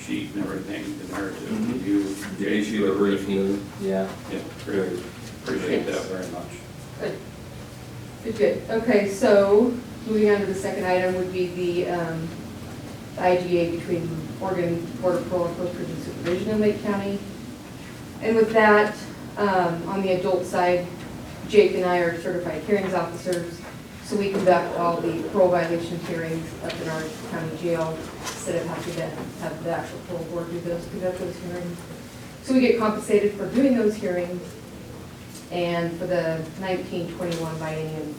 sheet and everything, the narrative, Mhm. to you. They issued a briefing. Yeah. Yeah, great. Appreciate that very much. Good. Good, good. Okay, so moving on to the second item would be the um, IGA between Oregon Board of Parole and Post-Prison Supervision in Lake County. And with that, um, on the adult side, Jake and I are certified hearings officers, so we conduct all the parole violation hearings up in our county jail instead of having to have the actual parole board do those, conduct those hearings. So we get compensated for doing those hearings. And for the nineteen twenty-one biennium,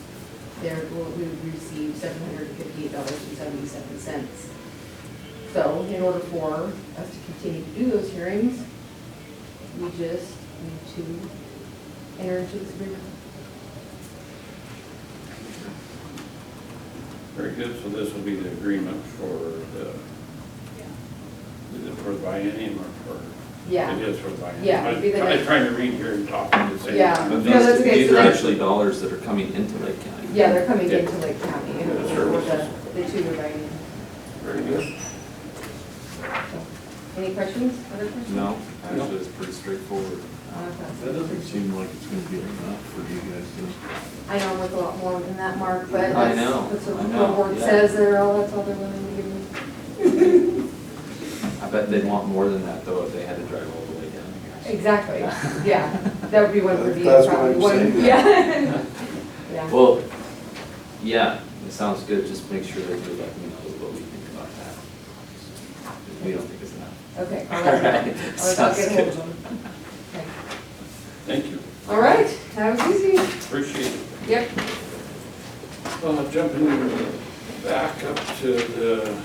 there, will- we would receive seven hundred and fifty-eight dollars and seventy-seven cents. So in order for us to continue to do those hearings, we just need to enter into this agreement. Very good, so this will be the agreement for the, is it for the biennium or for? Yeah. It is for the biennium. Yeah, it'd be the I'm next- trying to read here and talk at the same. Yeah. time. But No, that's these, okay. these So are that's- actually dollars that are coming into Lake County. Yeah, they're coming Yeah. into Lake County, and The we're the, services. the two biennium. Very good. Any questions, other questions? No, actually, it's pretty straightforward. Uh, that's- That doesn't seem like it's gonna be enough for you guys to. I know I'm worth a lot more than that, Mark, but I that's, know, that's I what the know, board yeah. says, they're all, that's all they're willing to give me. I bet they'd want more than that, though, if they had to drive all the way down here. Exactly, yeah, that would be one review, That's what probably I'm one, saying. yeah. Yeah, Well, yeah, it sounds good, just make sure that you let me know what we think about that. We don't think it's enough. okay. I'll let them Alright, sounds know. I'll let them get hold good. of them. Okay. Thank you, All right, that was easy, appreciate it. yep, Well, jumping back up to the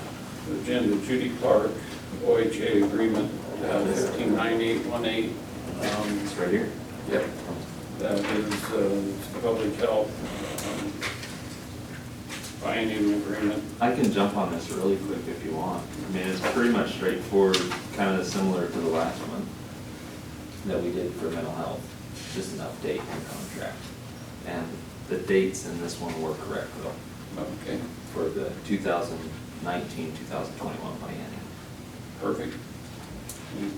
agenda, Judy Clark, OHA agreement, fifteen nine eight one eight. Um, It's right here? Yep. That is uh, public health um, binding agreement. I can jump on this really quick if you want. I mean, it's pretty much straightforward, kind of similar to the last one that we did for mental health, just an update and contract. And the dates in this one were correct though, Okay, for the 2019, 2021 biennium. perfect. Any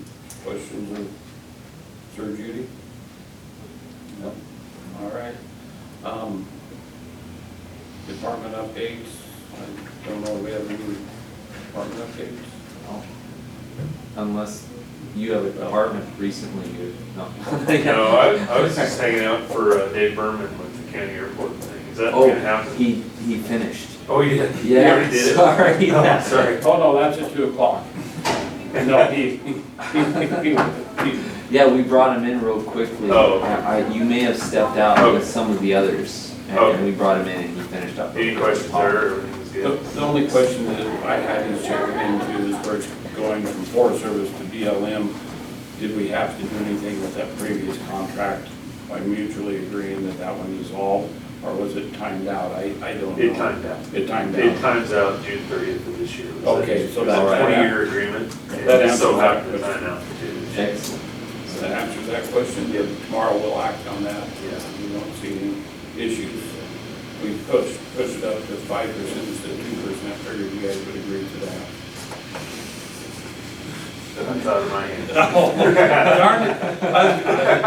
Questions of Sir Judy? No? All right. Um, Department updates, I don't know, if we have any department updates? Unless you have a department recently, you, no. No, I, I was just hanging out for uh, Dave Berman with the county airport thing. Is that Oh, gonna happen? he, he finished. Oh, you did? You Yeah, already did it? sorry, Oh, yeah. Sorry. Oh, no, that's at two o'clock. No, he, he, he, he, Yeah, we brought him in real quickly. Oh, okay. I- I- You may have stepped out with some of the others, and- and Okay. we brought him in and he finished up. Any questions there? Everything was The good? the only question that I had is checking into is where it's going from Forest Service to BLM. Did we have to do anything with that previous contract by mutually agreeing that that one dissolved? Or was it timed out? I, I don't know. It timed out. It timed It out. times out June thirtieth of this year. It was a- Okay, so It was that's a right. twenty-year agreement. and That it just so answers that happened that I question. announced it. did. Excellent. Does that answer that question? Yeah, Tomorrow we'll act on that. Yeah. We don't see any issues. We pushed, pushed it up to five percent instead of two percent. I figured you guys would agree to that. That's out of my hand. Oh, Darn it.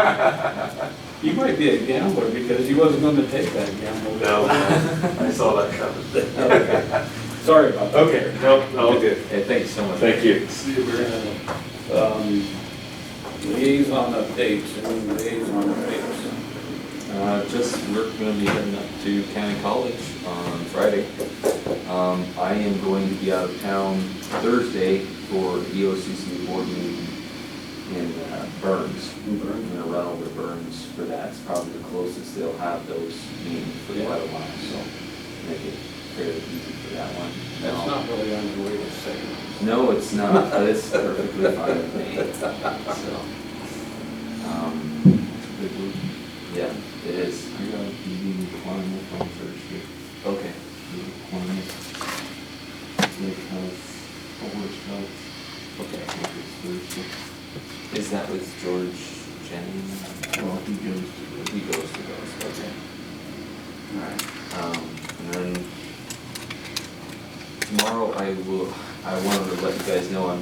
You might be a gambler because he wasn't gonna take that gamble. No, I saw that coming. Sorry about that. Okay, no, all good. Hey, thank you so much. you. See, we're gonna, um, liaison updates, and liaison updates. Uh, just, we're gonna be heading up to County College on Friday. Um, I am going to be out of town Thursday for E the EOCC board meeting in uh, Burns. I'm gonna run over to Burns for that, it's probably the closest they'll have those meetings for quite a while, so make it fairly easy for that one. That's No. not really on the way to second. No, it's not, but it's perfectly fine with me, so. um, Yeah, it is, I got a meeting with Klamath on Thursday, okay. with Klamath, Lake House, Forest House. Okay. I think it's Thursday. Is that with George Jennings? Well, he goes to the. He goes to those, okay. Alright. Um, and then tomorrow I will, I wanted to let you guys know I'm